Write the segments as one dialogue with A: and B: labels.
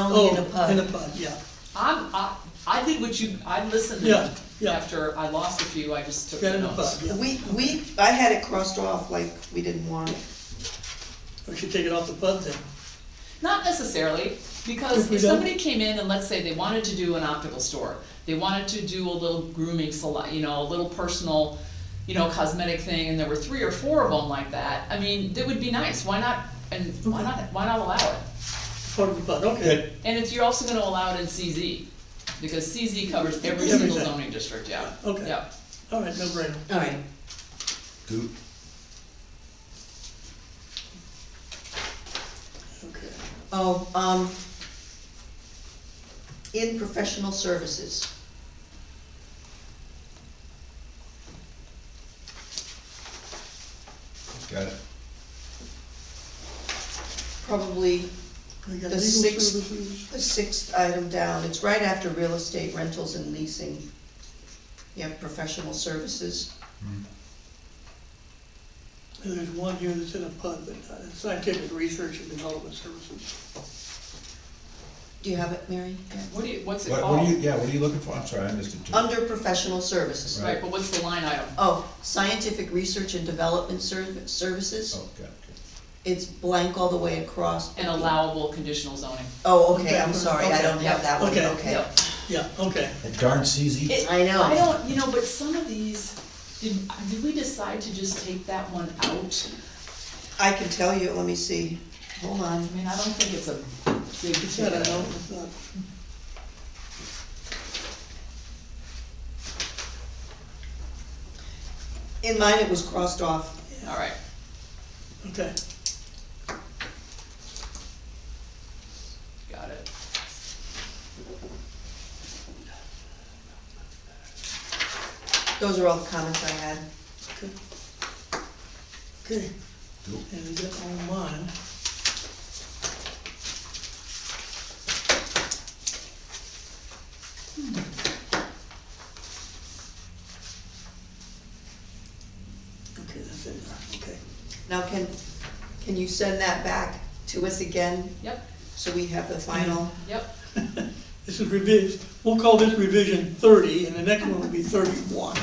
A: only in a
B: Oh, In a
A: pub.
B: pub, yeah.
C: I'm, I, I did what you, I listened.
B: Yeah, yeah.
C: After I lost a few, I just took
B: Got
C: the
B: in a pub,
C: notes.
B: yeah.
A: We, we, I had it crossed off like we didn't want it.
B: We should take it off the pub then.
C: Not necessarily, because
B: If we
C: if
B: don't-
C: somebody came in and let's say they wanted to do an optical store, they wanted to do a little grooming salon, you know, a little personal, you know, cosmetic thing, and there were three or four of them like that, I mean, that would be nice, why not, and why not, why not allow it?
B: Part of the pub, okay.
D: Good.
C: And if you're also gonna allow it in CZ, because CZ covers every single
B: Everything.
C: zoning district, yeah,
B: Okay.
C: yeah.
B: All right, no brainer.
A: All right,
D: Goop.
B: Okay.
A: oh, um, in professional services.
D: Got it.
A: probably
B: We got
A: The
B: legal
A: sixth-
B: services.
A: the sixth item down, it's right after real estate rentals and leasing. You have professional services,
B: And There's one here that's in a pub, but uh, scientific research and development services.
A: do you have it, Mary?
C: What do you, what's it
D: What, what
C: called?
D: are you, yeah, what are you looking for? I'm sorry, I missed it too.
A: Under professional services,
C: Right, but what's the line item?
A: oh, scientific research and development serv- services,
D: Oh, got it, got
A: it's blank all the way across.
C: And allowable conditional zoning.
A: Oh, okay, I'm sorry, I don't
B: Okay,
A: have that one,
B: okay.
A: okay.
C: Yep.
B: Yeah, okay.
D: it. That darn CZ.
A: I know.
C: I don't, you know, but some of these, did, did we decide to just take that one out?
A: I can tell you, let me see, hold on,
C: I mean, I don't think it's a big
B: It's not, I
C: deal.
B: don't, it's not.
A: in mine it was crossed off,
C: All right,
B: Okay,
C: got it.
A: those are all the comments I had.
B: okay. Okay,
D: Goop.
B: and we got all mine.
A: Hmm.
B: Okay, that's it, okay.
A: Now, can, can you send that back to us again,
C: Yep,
A: so we have the final?
C: yep,
B: This is revision, we'll call this revision thirty, and the next one will be thirty-one.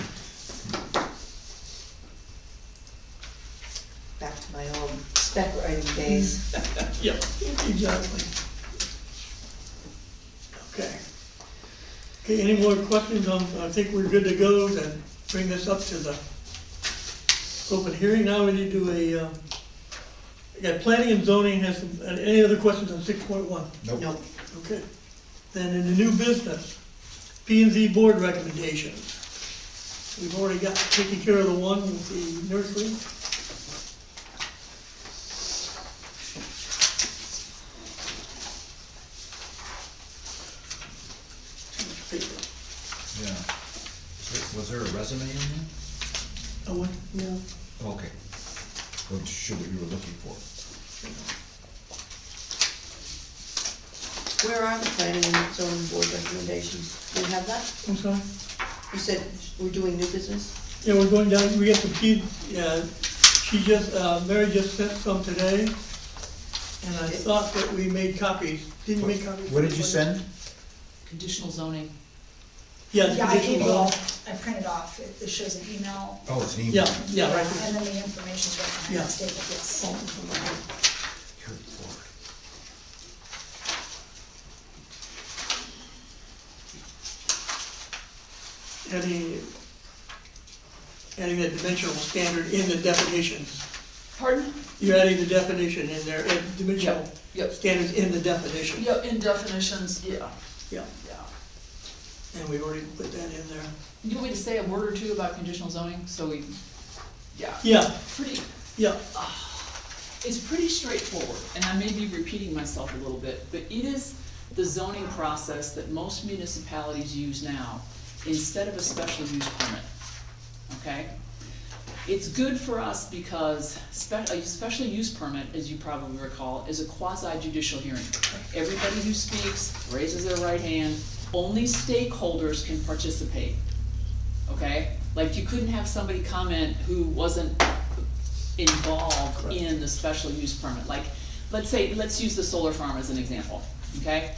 A: back to my old spec writing days.
B: Yep, exactly. Okay. Okay, any more questions? Um, I think we're good to go, then bring this up to the open hearing. Now we need to do a, um, yeah, planning and zoning has, some- uh, any other questions on six point one?
D: Nope.
A: Nope.
B: Okay. Then in the new business, P and Z board recommendations. We've already got, taken care of the one with the nursery.
D: Yeah. Was- Was there a resume in there?
B: Oh, what?
A: No.
D: Okay. Wasn't sure what you were looking for.
A: Where are the planning and zoning board recommendations? Do you have that?
B: I'm sorry?
A: You said we're doing new business?
B: Yeah, we're going down, we got some feed, yeah, she just, uh, Mary just sent some today, and I thought that we made copies, didn't we make copies.
D: What did you send?
C: conditional zoning.
B: Yeah, the
E: Yeah, I gave
B: conditional
E: you
B: law.
E: all, I printed off, it it shows an email.
D: Oh, it's an email.
B: Yeah, yeah, right
E: And
B: there.
E: then the information's right behind
B: Yeah.
E: the statement, yes.
B: Oh,
D: Good lord.
B: Adding, adding that dimensional standard in the definitions.
C: Pardon?
B: You're adding the definition in there, and dimensional
C: Yep,
B: standards in the definition.
C: yep, in definitions, yeah,
B: Yeah,
C: yeah.
B: and we've already put that in there.
C: You want me to say a word or two about conditional zoning, so we, yeah,
B: Yeah,
C: pretty,
B: yeah,
C: it's pretty straightforward, and I may be repeating myself a little bit, but it is the zoning process that most municipalities use now instead of a special use permit, okay? It's good for us because spe- a special use permit, as you probably recall, is a quasi judicial hearing. Everybody who speaks raises their right hand, only stakeholders can participate, okay? Like, you couldn't have somebody comment who wasn't involved in the special use permit, like, let's say, let's use the solar farm as an example, okay?